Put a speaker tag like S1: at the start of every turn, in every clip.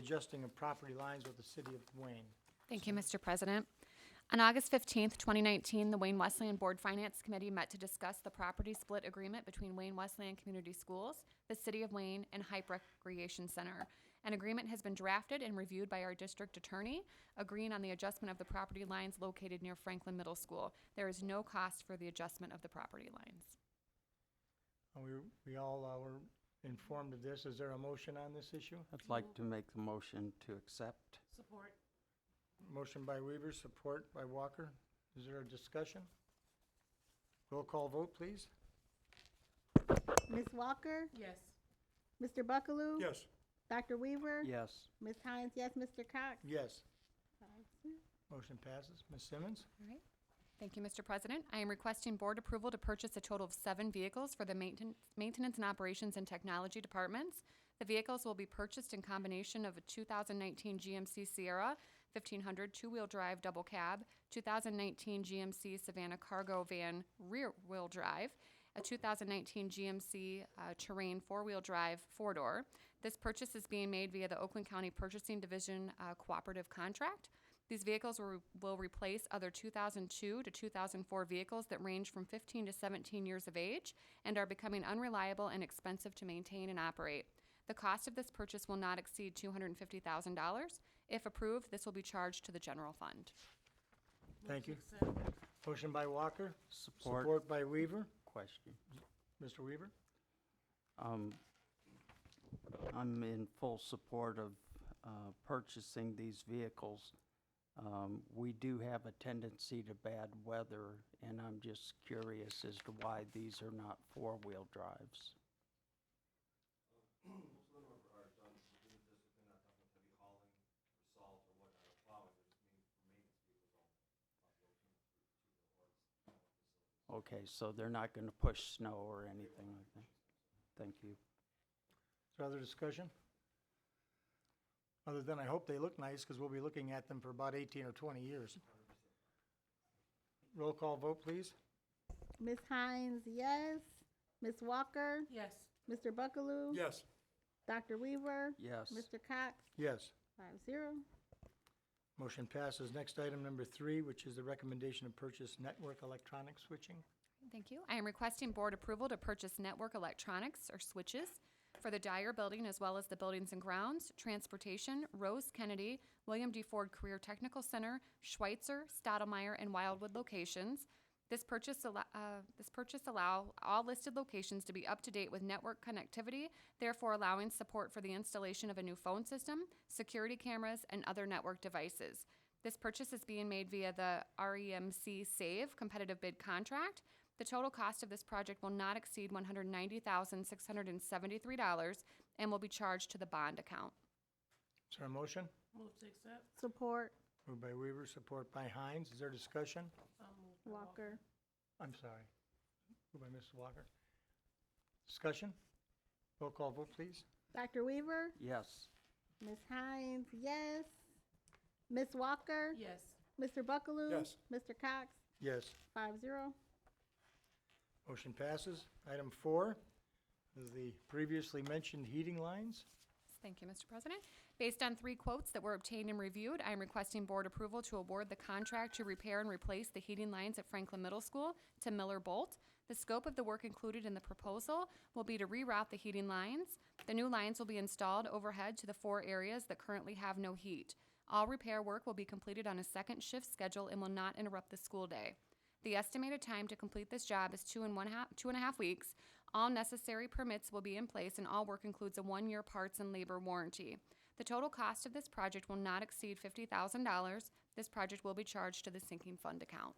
S1: adjusting of property lines with the city of Wayne.
S2: Thank you, Mr. President. On August 15th, 2019, the Wayne Wesleyan Board Finance Committee met to discuss the property split agreement between Wayne Wesleyan Community Schools, the City of Wayne, and Hype Recreation Center. An agreement has been drafted and reviewed by our district attorney, agreeing on the adjustment of the property lines located near Franklin Middle School. There is no cost for the adjustment of the property lines.
S1: And we, we all uh, were informed of this. Is there a motion on this issue?
S3: I'd like to make the motion to accept.
S4: Support.
S1: Motion by Weaver, support by Walker. Is there a discussion? Roll call vote, please.
S5: Ms. Walker?
S4: Yes.
S5: Mr. Buckaloo?
S1: Yes.
S5: Dr. Weaver?
S3: Yes,
S5: Ms. Hines, yes. Mr. Cox?
S1: Yes. Motion passes. Ms. Simmons?
S2: All right. Thank you, Mr. President. I am requesting board approval to purchase a total of seven vehicles for the mainten- Maintenance and Operations and Technology Departments. The vehicles will be purchased in combination of a 2019 GMC Sierra 1500 two-wheel drive double cab, 2019 GMC Savannah cargo van rear-wheel drive, a 2019 GMC uh, Terrain four-wheel drive four-door. This purchase is being made via the Oakland County Purchasing Division uh, Cooperative Contract. These vehicles will, re- will replace other 2002 to 2004 vehicles that range from 15 to 17 years of age and are becoming unreliable and expensive to maintain and operate. The cost of this purchase will not exceed $250,000. If approved, this will be charged to the general fund.
S1: Thank you. Motion by Walker,
S3: support
S1: support by Weaver.
S3: question.
S1: Mr. Weaver?
S3: Um, I'm in full support of uh, purchasing these vehicles. Um, We do have a tendency to bad weather, and I'm just curious as to why these are not four-wheel drives. Okay, so they're not going to push snow or anything like that? Thank you.
S1: Is there other discussion? Other than I hope they look nice, because we'll be looking at them for about eighteen or twenty years. Roll call vote, please.
S5: Ms. Hines, yes. Ms. Walker?
S4: Yes.
S5: Mr. Buckaloo?
S1: Yes.
S5: Dr. Weaver?
S3: Yes.
S5: Mr. Cox?
S1: Yes.
S5: Five zero.
S1: Motion passes. Next item number three, which is the recommendation to purchase network electronic switching.
S2: Thank you. I am requesting board approval to purchase network electronics or switches for the Dyer Building as well as the buildings and grounds, transportation, Rose Kennedy, William D. Ford Career Technical Center, Schweitzer, Stottlemyre, and Wildwood locations. This purchase, allo- uh, this purchase allow all listed locations to be up to date with network connectivity, therefore allowing support for the installation of a new phone system, security cameras, and other network devices. This purchase is being made via the REMC SAVE competitive bid contract. The total cost of this project will not exceed one hundred ninety thousand, six hundred and seventy-three dollars and will be charged to the bond account.
S1: Is there a motion?
S4: Move to accept.
S5: Support.
S1: Moved by Weaver, support by Hines. Is there discussion?
S4: So moved.
S5: Walker.
S1: I'm sorry. Moved by Mrs. Walker. Discussion? Roll call vote, please.
S5: Dr. Weaver?
S3: Yes,
S5: Ms. Hines, yes. Ms. Walker?
S4: Yes.
S5: Mr. Buckaloo?
S1: Yes.
S5: Mr. Cox?
S1: Yes.
S5: Five zero.
S1: Motion passes. Item four is the previously mentioned heating lines.
S2: Thank you, Mr. President. Based on three quotes that were obtained and reviewed, I am requesting board approval to award the contract to repair and replace the heating lines at Franklin Middle School to Miller Bolt. The scope of the work included in the proposal will be to reroute the heating lines. The new lines will be installed overhead to the four areas that currently have no heat. All repair work will be completed on a second shift schedule and will not interrupt the school day. The estimated time to complete this job is two and one half, two and a half weeks. All necessary permits will be in place and all work includes a one-year parts and labor warranty. The total cost of this project will not exceed fifty thousand dollars. This project will be charged to the sinking fund account.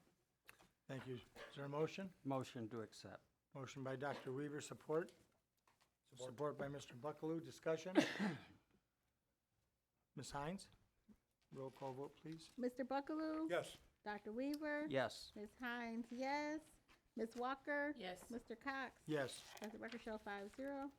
S1: Thank you. Is there a motion?
S3: motion to accept.
S1: Motion by Dr. Weaver, support. Support by Mr. Buckaloo. Discussion? Ms. Hines? Roll call vote, please.
S5: Mr. Buckaloo?
S1: Yes.
S5: Dr. Weaver?
S3: Yes,
S5: Ms. Hines, yes. Ms. Walker?
S4: Yes.
S5: Mr. Cox?
S1: Yes.
S5: As the record show, five zero.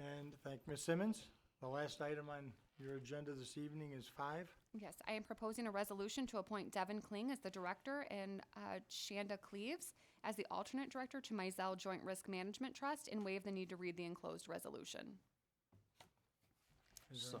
S1: And thank Ms. Simmons. The last item on your agenda this evening is five.
S2: Yes, I am proposing a resolution to appoint Devin Kling as the director and uh, Shanda Cleaves as the alternate director to Mizell Joint Risk Management Trust and waive the need to read the enclosed resolution.
S1: Is there-
S3: so,